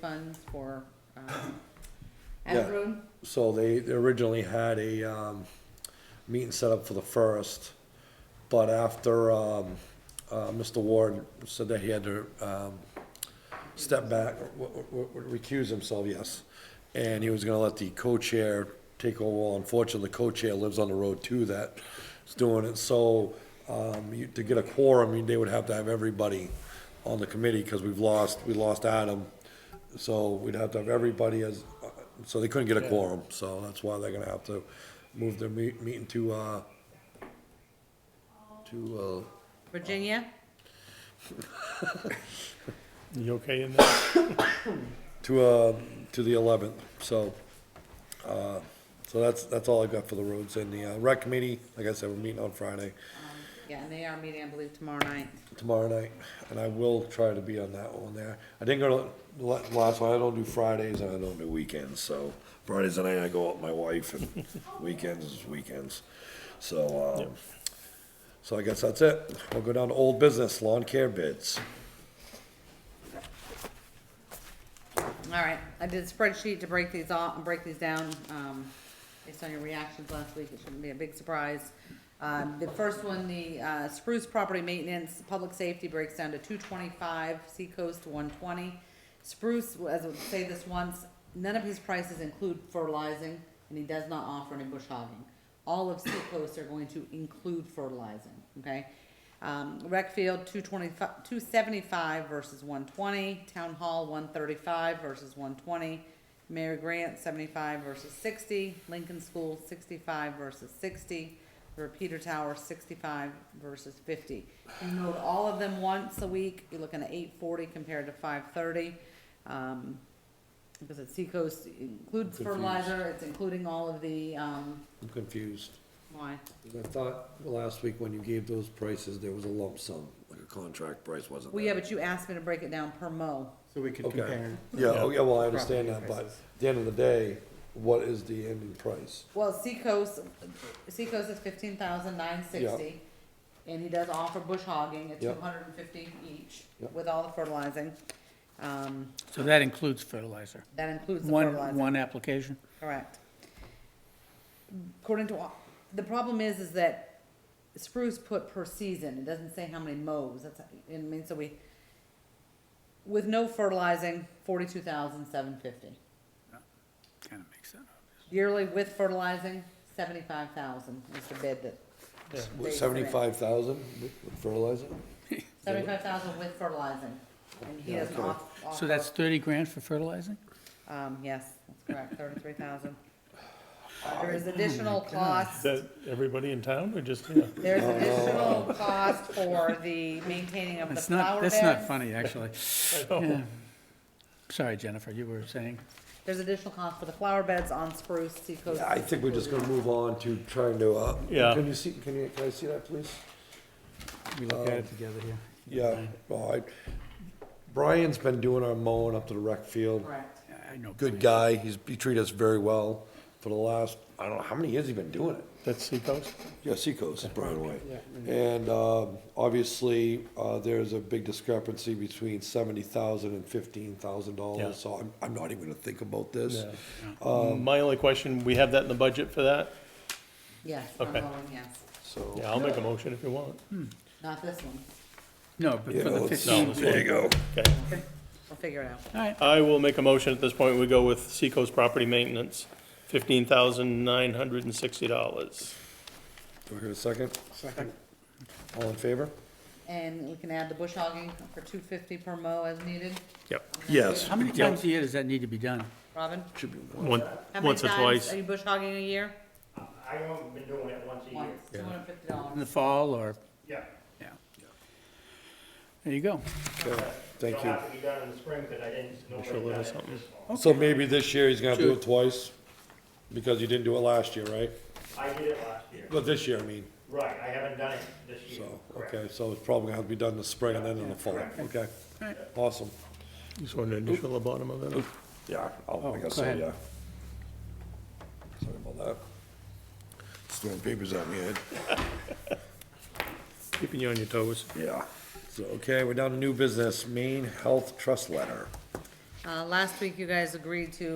funds for, um, Yeah. Avon. So they they originally had a, um, meeting set up for the first, but after, um, uh, Mr. Ward said that he had to, um, step back, w- w- w- recuse himself, yes. And he was gonna let the co-chair take over. Unfortunately, the co-chair lives on the road too that's doing it. So, um, you, to get a quorum, you- they would have to have everybody on the committee, cause we've lost, we lost Adam. So we'd have to have everybody as, uh, so they couldn't get a quorum, so that's why they're gonna have to move their meet, meeting to, uh, to, uh, Virginia? You okay in there? uh, to, uh, to the eleventh, so, uh, so that's, that's all I've got for the roads and the, uh, rec committee, like I said, we're meeting on Friday, Yeah, and they are meeting, I believe, tomorrow night. tomorrow night, and I will try to be on that one there. I didn't go to the la- last one, I don't do Fridays and I don't do weekends, so Fridays and I, I go out with my wife and weekends is weekends. So, um, so I guess that's it. We'll go down to old business, lawn care bids. All right, I did a spreadsheet to break these off, break these down, um, based on your reactions last week, it shouldn't be a big surprise. Uh, the first one, the, uh, Spruce Property Maintenance, Public Safety breaks down to two twenty-five, Seacoast to one twenty. Spruce, as I say this once, none of his prices include fertilizing, and he does not offer any bush hogging. All of Seacoast are going to include fertilizing, okay? Um, rec field, two twenty-five, two seventy-five versus one twenty, town hall, one thirty-five versus one twenty, Mary Grant, seventy-five versus sixty, Lincoln School, sixty-five versus sixty, Repeater Tower, sixty-five versus fifty. You note all of them once a week, you're looking at eight forty compared to five thirty. Um, because it's Seacoast includes Confused. fertilizer, it's including all of the, um, I'm confused. why? I thought last week when you gave those prices, there was a lump sum, like a contract price, wasn't Well, yeah, but you asked me to break it down per mo. So we could Okay. compare. Yeah, oh, yeah, well, I understand that, Property but prices. at the end of the day, what is the ending price? Well, Seacoast, Seacoast is fifteen thousand nine sixty, and he does offer bush hogging at Yeah. two hundred and fifty each Yeah. with all the fertilizing. Um, So that includes fertilizer? that includes the One, fertilizing. one application? Correct. According to, all- the problem is, is that spruce put per season, it doesn't say how many mows, that's, I mean, so we, with no fertilizing, forty-two thousand seven fifty. Kind of makes sense. Yearly with fertilizing, seventy-five thousand is the bid that, What, They- seventy-five thousand with fertilizer? seventy-five thousand with fertilizing. And he doesn't Okay. off- offer. So that's thirty grand for fertilizing? Um, yes, that's correct, thirty-three thousand. There is additional costs. Is that everybody in town or just here? There's additional cost for the maintaining of the That's flower not, beds. that's not funny, actually. Yeah. Sorry, Jennifer, you were saying? There's additional cost for the flower beds on Spruce, Seacoast. I think we're just gonna move on to trying to, uh, Yeah. can you see, can you, can I see that, please? We look at Oh. it together here. Yeah, all right. Brian's been doing our mowing up to the rec field. Correct. I- I know. Good guy, he's, he treated us very well for the last, I don't know, how many years he been doing it? That's Seacoast? Yeah, Seacoast is Brown Way. And, um, obviously, uh, there's a big discrepancy between seventy thousand and fifteen thousand Yeah. dollars, so I'm, I'm not even gonna think about this. My only question, we have that in the budget for that? Yes, I'm Okay. going, yes. So, Yeah, I'll make a motion if you want. Not this one. No, but yeah, for the let's- fifteen. there you go. Mm. Okay. We'll figure it out. All right, I will make a motion at this point. We go with Seacoast Property Maintenance, fifteen thousand nine hundred and sixty dollars. Do we hear a second? Second. All in favor? And we can add the bush hogging for two fifty per mo as needed. Yep. Yes. how many times a year does that need to be done? Robin? Should be one. Once, how many once or times twice. Are you bush hogging a year? I have been doing it once a year. Once, two hundred and fifty In the dollars. fall or, Yeah. yeah. There you go. Okay, Thank It'll you. have to be done in the spring, because I didn't, nobody Sure, done little it something. this fall. So maybe this year he's gonna do it twice, because you didn't do it last year, right? I did it last year. Well, this year, I mean, Right, I haven't done it this year. so, Correct. okay, so it's probably gonna have to be done in the spring and then in the fall, okay? Right. Awesome. Just want to initial the bottom of it. Yeah, I'll- I Oh, go guess so, ahead. yeah. Sorry about that. Just throwing papers at me, Ed. Keeping you on your toes. Yeah. So, okay, we're down to new business, Maine Health Trust Letter. Uh, last week you guys agreed to